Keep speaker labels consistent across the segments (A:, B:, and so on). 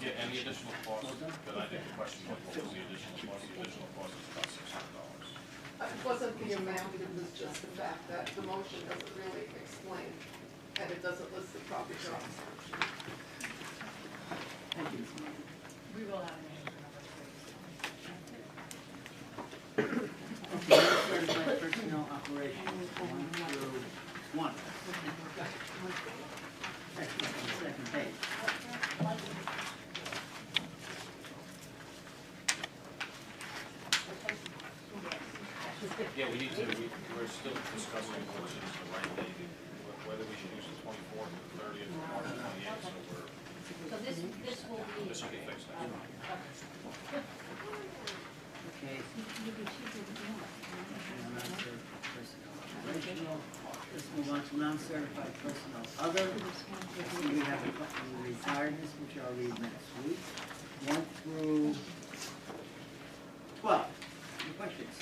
A: get any additional costs, then I think the question was, what was the additional cost? The additional cost is about six hundred dollars.
B: It wasn't the amount, it was just the fact that the motion doesn't really explain, and it doesn't list the property job description.
C: Thank you, Ms. Moran.
D: We will have an answer number three.
C: Okay, let's start by personnel operations, one through one. Actually, on the second page.
A: Yeah, we need to, we, we're still discussing which is the right date, wh- whether we should use the twenty-fourth, the thirtieth, or March twenty-eighth, so we're,
E: So this, this will be.
A: this will be fixed next month.
C: Okay. and non-certified personnel operational. Let's move on to non-certified personnel other. Let's see, We have a couple of retirements, which I'll read next week. One through twelve. Any questions?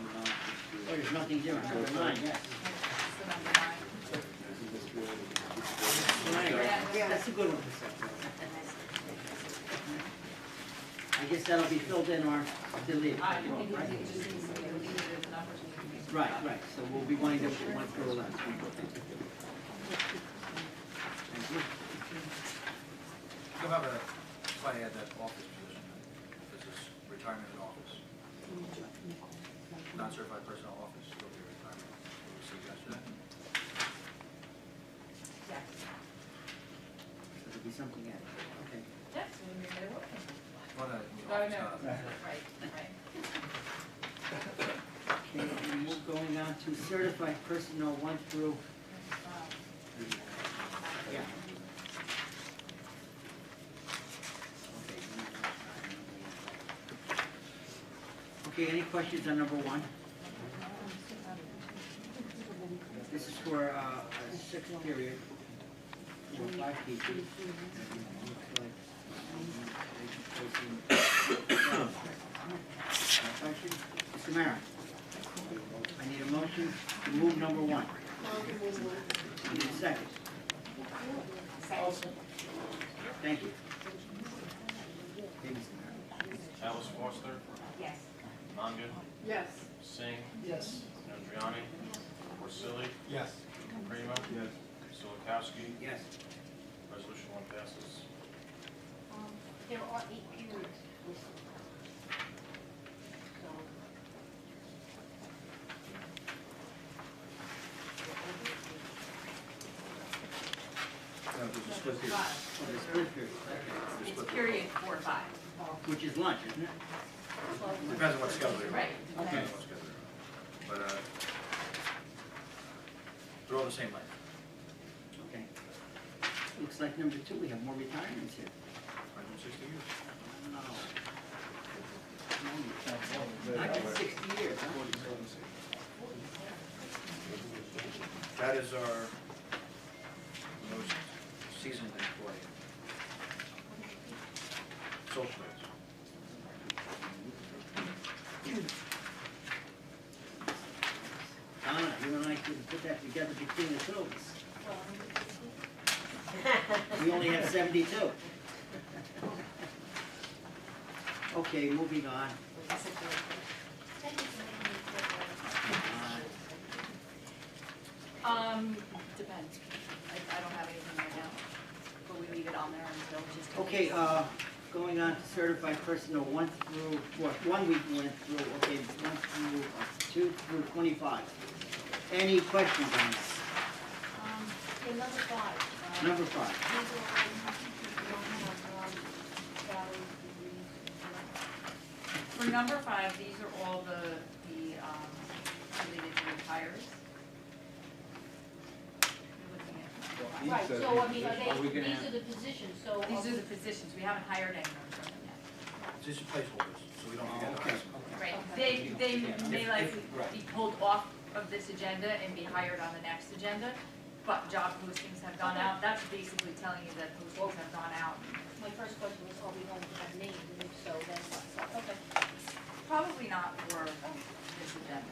C: Oh, there's nothing here, number nine, yes.
D: That's the number nine.
C: Right, yeah, that's a good one. I guess that'll be filled in or deleted.
D: I think
C: right?
D: it just needs to be deleted, the numbers need to be. switched
C: Right,
D: up.
C: right, so we'll be wanting to put one through eleven. Thank you.
F: You'll have a, probably add that office position, this is retirement in office. Non-certified personnel office, will be retirement, Will we suggest that?
D: Yes.
C: So It'll be something else, okay.
D: Yes, when you're there working.
F: Well, no, you know,
D: No,
F: it's
D: no,
F: not-
D: right, right.
C: Okay, and we're going on to certified personnel one through,
D: Um,
C: yeah. Okay, number nine. Okay, any questions on number one? This is for uh, a sixth period, for five teachers. Mr. Mayor, I need a motion to move number one. I need a second. Thank you. Thank you, Mr. Mayor.
A: Alice Foster,
E: Yes.
A: Nandu,
B: Yes,
A: Singh,
B: yes,
A: Andriani, Porcelli,
F: Yes.
A: Prima,
F: Yes.
A: Solikowski,
C: Yes,
A: resolution one passes.
E: Um, There are eight periods listed. So.
F: No, this is split here.
D: Five.
C: for the split period, okay,
D: It's period four, five.
C: which is lunch, isn't it?
F: Depends on what schedule you're on.
D: Right.
F: Depends on what schedule you're on. But, uh, they're all the same length.
C: Okay. Looks like number two, we have more retirements here.
F: 160 years.
C: I got sixty years, huh?
F: That is our most seasoned employee. Social rates.
C: Donna, you and I could put that together between the two of us. We only have seventy-two. Okay, moving on.
D: That's a period four.
C: Uh,
D: Um, depends. I, I don't have anything right now, but we leave it on there until just. in
C: Okay,
D: case.
C: uh, going on to certified personnel, one through, what, one we went through, okay, one through, uh, two through twenty-five. Any questions on this?
E: Um, yeah, number five. um,
C: Number five.
E: These are all the teachers who don't have, um, salaries, degrees,
D: For number five, these are all the, the, um, related to retires. You're looking at-
E: and- Right, so I mean, are they, these are the positions, so. um,
D: These are the positions, we haven't hired anyone from them yet.
F: These are placeholders, so we don't
C: Oh,
F: forget
C: okay,
F: those.
C: okay.
D: Right, they, they may likely
C: Right.
D: be pulled off of this agenda and be hired on the next agenda, but job postings have gone out, that's basically telling you that postings have gone out.
E: My first question was, are we going to have names, and if so, then what? So, Okay.
D: Probably not for this agenda.